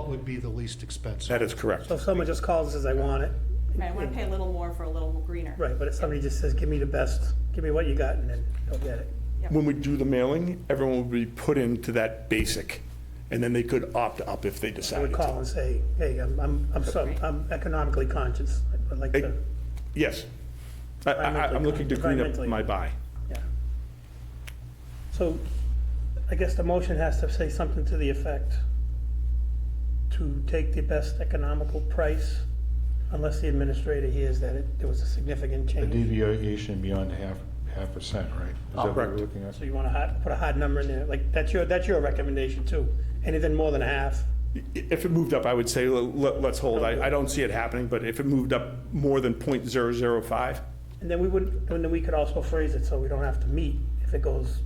would be the least expensive. That is correct. So if someone just calls and says, I want it, Right, I want to pay a little more for a little greener. right, but if somebody just says, give me the best, give me what you got, and then they'll get it. When we do the mailing, everyone will be put into that basic, and then they could opt up if they I would decided call to. and say, hey, I'm, I'm, I'm so, I'm economically conscious, I'd like to, Yes. I, I, I'm looking to green up Environmentally. my buy. yeah. So I guess the motion has to say something to the effect to take the best economical price unless the administrator hears that it, there was a significant A change. deviation beyond half, half percent, right? Is that what Correct. we're looking at? Oh. So you want to hard, put a hard number in there, like, that's your, that's your recommendation too. Anything more than a half, I- If it moved up, I would say, let, let's hold. I, I don't see it happening, but if it moved up more than point zero zero five, and then we would, and then we could also phrase it so we don't have to meet if it goes,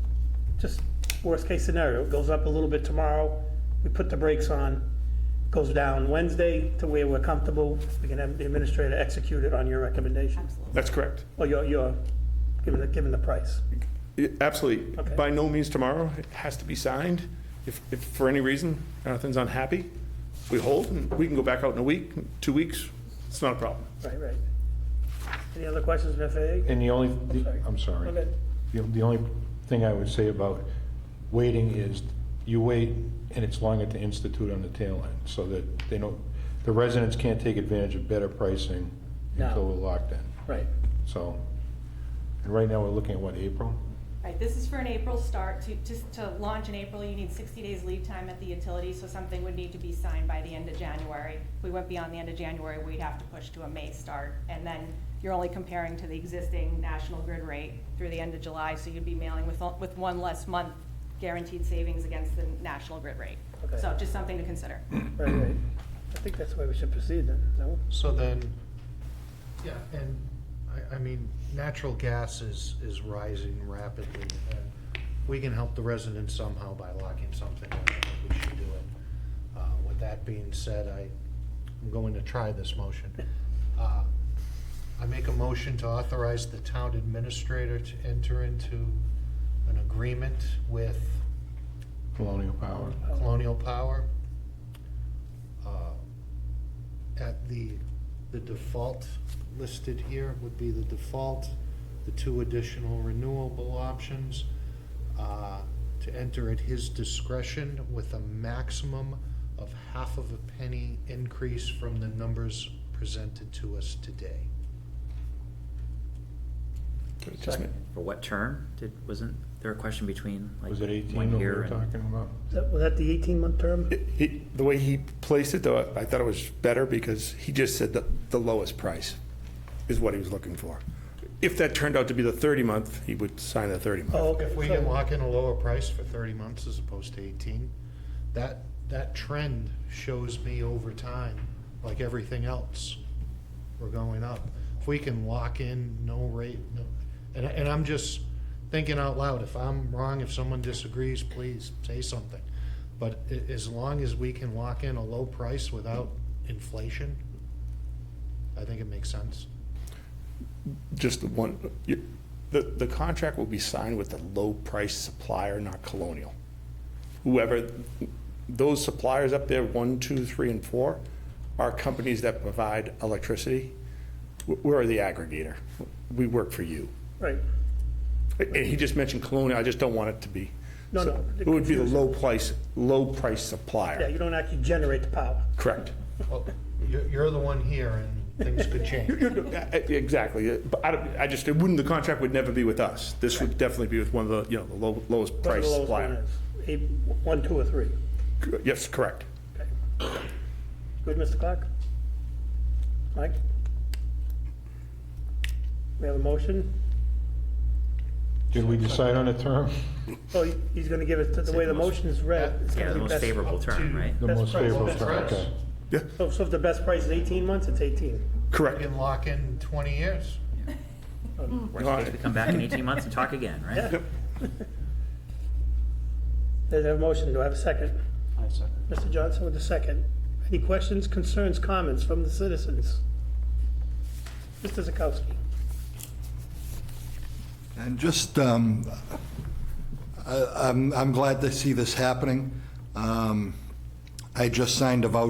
just worst case scenario, it goes up a little bit tomorrow, we put the brakes on, goes down Wednesday to where we're comfortable, we can have the administrator execute it on your recommendation, Absolutely. that's correct. or your, your, given the, given the price. I- Absolutely. Okay. By no means tomorrow, it has to be signed. If, if for any reason Jonathan's unhappy, we hold, and we can go back out in a week, two weeks, it's not a problem. Right, right. Any other questions, Ms. Fahey? And the only, sorry. I'm sorry. Okay. The the only thing I would say about waiting is you wait and it's longer to institute on the tail end so that they don't, the residents can't take advantage of better pricing No. until we're locked in. Right. So, and right now we're looking at what, April? Right, this is for an April start. To, just to launch in April, you need sixty days lead time at the utility, so something would need to be signed by the end of January. If we went beyond the end of January, we'd have to push to a May start. And then you're only comparing to the existing national grid rate through the end of July, so you'd be mailing with, with one less month guaranteed savings against the national grid rate. Okay. So just something to consider. Right, right. I think that's the way we should proceed then, no? So then, yeah, and I, I mean, natural gas is, is rising rapidly. and We can help the residents somehow by locking something in, I think we should do it. Uh, With that being said, I, I'm going to try this motion. Uh, I make a motion to authorize the town administrator to enter into an agreement with Colonial Power. Colonial Power. uh, At the, the default listed here would be the default, the two additional renewable options, uh, to enter at his discretion with a maximum of half of a penny increase from the numbers presented to us today. Just ma- For what term? Did, wasn't there a question between like? Was it 18 one that we year were and- talking about? Is that- Was that the eighteen-month term? It- he- The way he placed it, though, I thought it was better because he just said the, the lowest price is what he was looking for. If that turned out to be the 30-month, he would sign the 30-month. Oh, okay. If we So- can lock in a lower price for thirty months as opposed to eighteen, that, that trend shows me over time, like everything else, we're going up. If we can lock in no rate, no, and, and I'm just thinking out loud, if I'm wrong, if someone disagrees, please say something. But a- as long as we can lock in a low price without inflation, I think it makes sense. Just the one, you- the, the contract will be signed with the low-price supplier, not Colonial. Whoever, those suppliers up there, one, two, three, and four, are companies that provide electricity. W- We're the aggregator. We work for you. Right. And he just mentioned Colonial, I just don't want it to be. No, so no, the It would be the confusion. low price, low price Yeah, supplier, you don't actually generate the power. correct? Well, You're, you're the one here and things could change. You're- you're- uh, Exactly, Uh, but I, don't- I just, it wouldn't, the contract would never be with us. This would definitely be with one of the, you know, the low- lowest Whatever price the lowest one supplier. is. Eight, one, two, or three. C- Yes, correct. Good, Mr. Clark? Mike? We have a motion? Did we decide on a term? So Oh, he- he's gonna give it, to- the way the motion is read, it's Yeah, gonna the be most best. favorable term, to- right? The Best most price. favorable Best term, price. okay. Yeah, So, so if the best price is eighteen months, it's eighteen. We correct. can lock in twenty years. Worst case, we come back in eighteen months and talk again, right? There's a motion, do I have a second? I second. Mr. Johnson with a second. Any questions, concerns, comments from the citizens? Mr. Zakowski? And just, um, I- I'm I'm glad to see this happening. Um, I just signed a voucher